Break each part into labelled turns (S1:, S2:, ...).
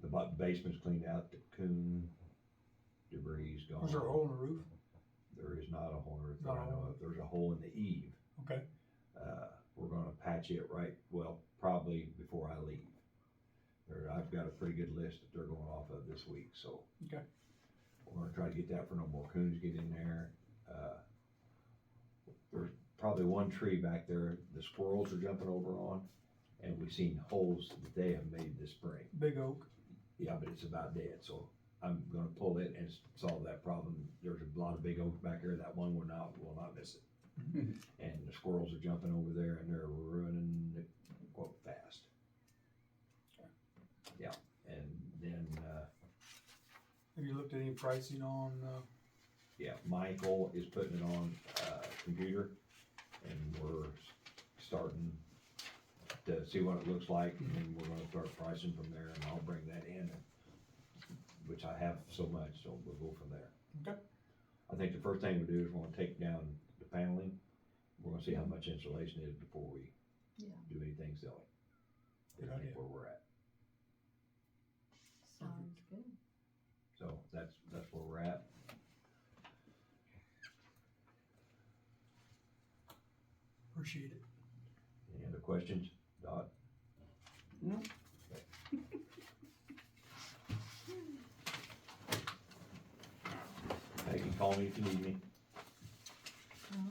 S1: The bu- basement's cleaned out, the coon debris gone.
S2: Was there a hole in the roof?
S1: There is not a hole in the roof that
S2: Not a
S1: I know
S2: hole.
S1: of. There's a hole in the eave.
S2: Okay,
S1: Uh, we're gonna patch it right, well, probably before I leave. There, I've got a pretty good list that they're going off of this week, so.
S2: Okay.
S1: We're gonna try to get that for no more coons get in there. Uh, There's probably one tree back there the squirrels are jumping over on, and we've seen holes that they have made this spring.
S2: big oak.
S1: Yeah, but it's about dead, so I'm gonna pull it and s- solve that problem. There's a lot of big oaks back there, that one will not, will not miss it. And the squirrels are jumping over there and they're ruining it quite fast. Yeah, and then, uh,
S2: Have you looked at any pricing on, uh,
S1: yeah, Michael is putting it on, uh, computer and we're s- starting to see what it looks like and then we're gonna start pricing from there and I'll bring that in, which I have so much, so we'll go from there.
S2: Okay.
S1: I think the first thing we do is we're gonna take down the paneling. We're gonna see how much insulation is before we
S3: Yeah.
S1: do anything silly.
S2: Good
S1: I think
S2: idea.
S1: Where we're at.
S3: Sounds good.
S1: So that's, that's where we're at.
S2: appreciate it?
S1: Any other questions? Dot?
S4: No.
S1: Hey, you call me if you need me.
S3: Well,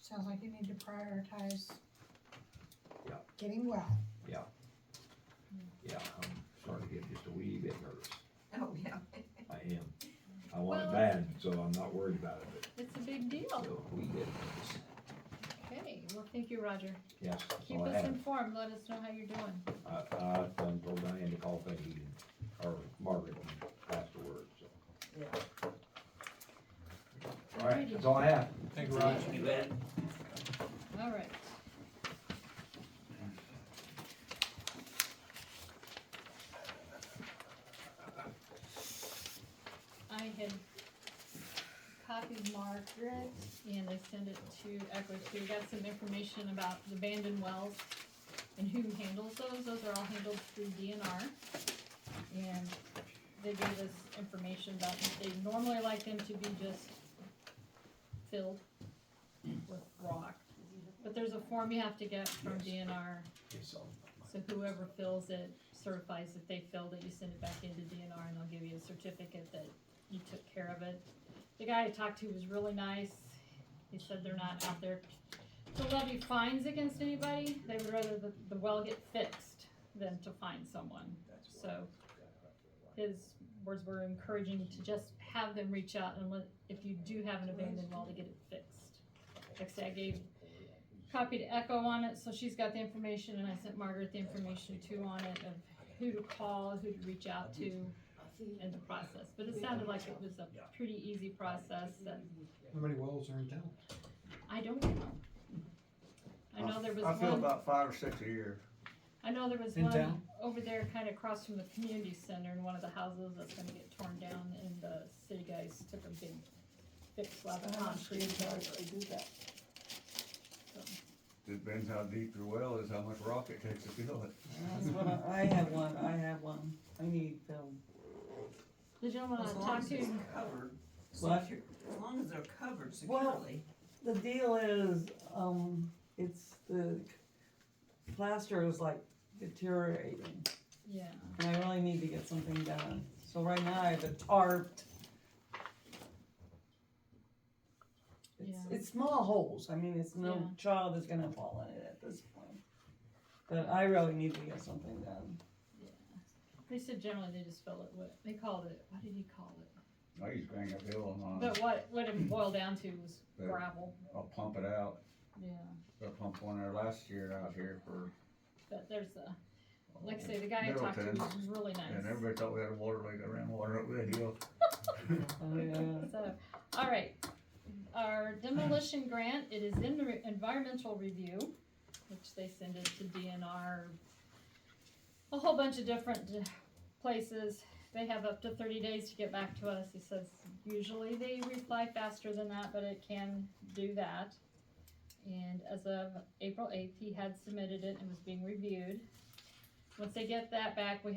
S3: Sounds like you need to prioritize.
S1: Yeah.
S3: Getting well.
S1: Yeah. Yeah, I'm starting to get just a wee bit nervous.
S3: Oh, yeah.
S1: I am. I want it
S3: Well- Oh.
S1: bad, so I'm not worried about it,
S3: It's a big
S1: but
S3: deal.
S1: still, we get nervous.
S3: Okay, well, thank you, Roger.
S1: Yes, that's
S3: Keep
S1: all I
S3: us
S1: have.
S3: informed, let us know how you're doing.
S1: I, I done told Diane to call Peggy and- or Margaret and pass the word, so.
S3: Yeah.
S1: All right, that's all I have.
S2: Thank you, Roger.
S4: You bet.
S3: All right. I had copied Margaret and I sent it to Echo, so we got some information about the abandoned wells and who handles those, those are all handled through DNR. And they gave us information about, that they normally like them to be just filled with rock. But there's a form you have to get from DNR, so whoever fills it certifies that they filled it, you send it back into DNR and they'll give you a certificate that you took care of it. The guy I talked to was really nice, he said they're not out there to levy fines against anybody, they would rather the, the well get fixed than to find someone, so. His words were encouraging to just have them reach out and let, if you do have an abandoned well, to get it fixed. Like I said, I gave copied Echo on it, so she's got the information, and I sent Margaret the information too on it of who to call, who to reach out to, and the process. But it sounded like it was a pretty easy process that,
S2: How many wells are in town?
S3: I don't know. I know there was
S4: I feel
S3: one,
S4: about five or six a year.
S3: I know there was
S2: In
S3: one
S2: town?
S3: over there kind of across from the community center in one of the houses that's gonna get torn down, and the city guys took a big, big slab of concrete.
S4: Depends how deep your well is, how much rock it takes to fill it.
S5: That's what I, I have one, I have one, I need film.
S3: The gentleman
S6: As
S3: I
S6: long
S3: talked
S6: as
S3: to,
S6: it's covered.
S5: What?
S6: secure- As long as they're covered
S5: Well-
S6: securely.
S5: The deal is, um, it's the plaster is like deteriorating,
S3: yeah,
S5: and I really need to get something done. So right now I have it tarped. It's,
S3: Yeah.
S5: it's small holes, I mean, it's no
S3: Yeah.
S5: child is gonna fall in it at this point. But I really need to get something done.
S3: they said generally they just fill it with, they called it, what did he call it?
S4: I used to bang up hill and on,
S3: But what, what it boiled down to was
S4: Yeah.
S3: gravel,
S4: I'll pump it out.
S3: yeah,
S4: I pumped one there last year out here for.
S3: but there's a, like I say, the guy I talked to
S4: Middleton.
S3: was really
S4: And
S3: nice.
S4: everybody thought we had a water leak, I ran water up the hill.
S5: Oh, yeah.
S3: So, all right, our demolition grant, it is in the re- environmental review, which they send it to DNR, a whole bunch of different d- places. They have up to thirty days to get back to us. He says usually they reply faster than that, but it can do that. And as of April eighth, he had submitted it and was being reviewed. Once they get that back, we